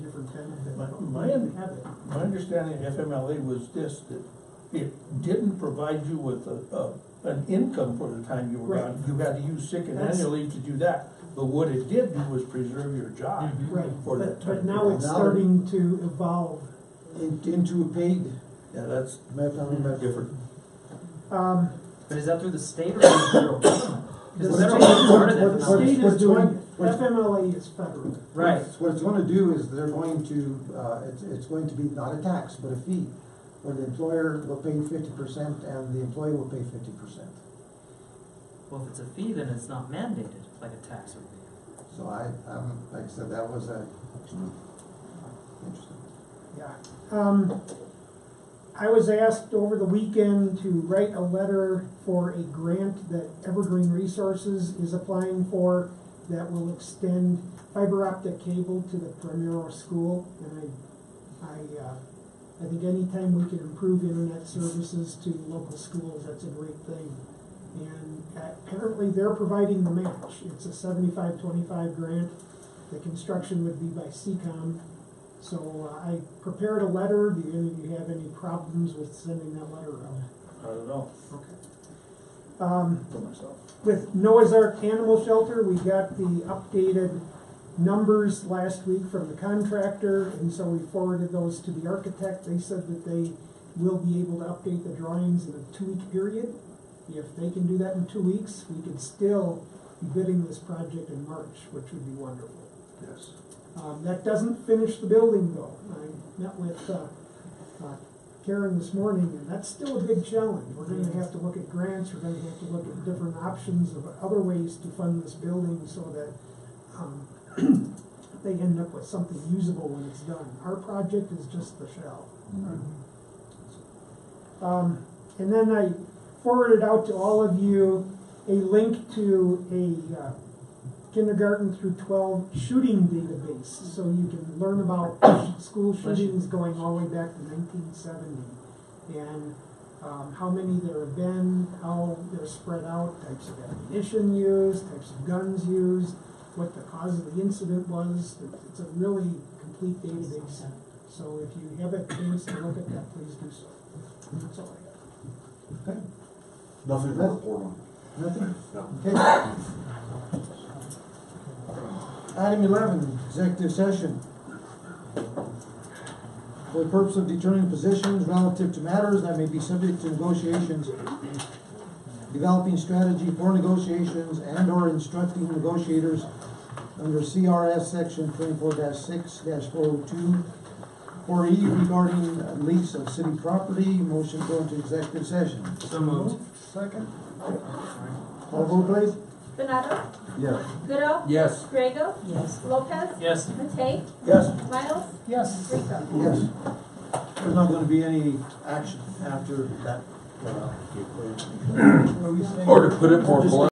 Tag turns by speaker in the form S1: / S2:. S1: My,
S2: oh,
S1: my un- my understanding of FMLA was this, that it didn't provide you with a, a, an income for the time you were
S2: Right.
S1: gone. You had to use sick and
S2: That's-
S1: annual leave to do that, but what it did do was preserve your job.
S3: Mhm.
S2: Right,
S1: For that
S2: but, but
S1: time.
S2: now it's
S4: Now-
S2: starting to evolve. Mm-hmm.
S4: in- into a paid,
S1: Yeah, that's
S4: Matt,
S1: different.
S2: Um,
S3: But is that through the state or through the federal?
S2: The
S3: Because the federal
S2: state-
S3: started it.
S2: what the state is
S4: What's
S2: doing,
S4: going- what's-
S2: FMLA is federal.
S3: Right.
S4: What it's gonna do is they're going to, uh, it's, it's going to be not a tax, but a fee. Where the employer will pay fifty percent and the employee will pay fifty percent.
S3: Well, if it's a fee, then it's not mandated, like a tax would be.
S4: So I, um, like I said, that was a, interesting.
S2: Yeah. Um, I was asked over the weekend to write a letter for a grant that Evergreen Resources is applying for that will extend fiber optic cable to the Primero School. And I, I, uh, I think anytime we can improve internet services to local schools, that's a great thing. And apparently they're providing the match. It's a seventy-five, twenty-five grant. The construction would be by CCOM. So uh, I prepared a letter. Do you, you have any problems with sending that letter out?
S1: I don't know.
S2: Um,
S1: For myself.
S2: with Noah's Ark Animal Shelter, we got the updated numbers last week from the contractor, and so we forwarded those to the architect. They said that they will be able to update the drawings in a two-week period. If they can do that in two weeks, we could still be bidding this project in March, which would be wonderful.
S1: Yes.
S2: Um, that doesn't finish the building though. I met with, uh, uh, Karen this morning and that's still a big challenge. We're gonna have to look at grants, we're gonna have to look at different options of other ways to fund this building so that, um, they end up with something usable when it's done. Our project is just the shell. Um, and then I forwarded out to all of you a link to a uh, kindergarten through twelve shooting database, so you can learn about school shootings going all the way back to nineteen seventy. And, um, how many there have been, how they're spread out, types of ammunition used, types of guns used, what the cause of the incident was, it's a really complete database. So if you have a chance to look at that, please do so. That's all I got.
S5: Nothing to report on.
S4: Nothing?
S5: No.
S4: Okay. Item eleven, executive session. For the purpose of determining positions relative to matters that may be subject to negotiations, developing strategy for negotiations and or instructing negotiators under CRS section twenty-four six four oh two, or E regarding lease of city property, motion to go into executive session.
S3: So moved.
S4: Second. All vote please.
S6: Benado,
S5: Yes.
S6: Goodall,
S1: Yes.
S6: Grego. Yes. Lopez,
S3: Yes.
S6: Matei,
S1: Yes.
S6: Miles,
S4: Yes.
S6: Rico.
S4: Yes. There's not gonna be any uh, action after that. What are we saying?
S5: Or to put it more bluntly.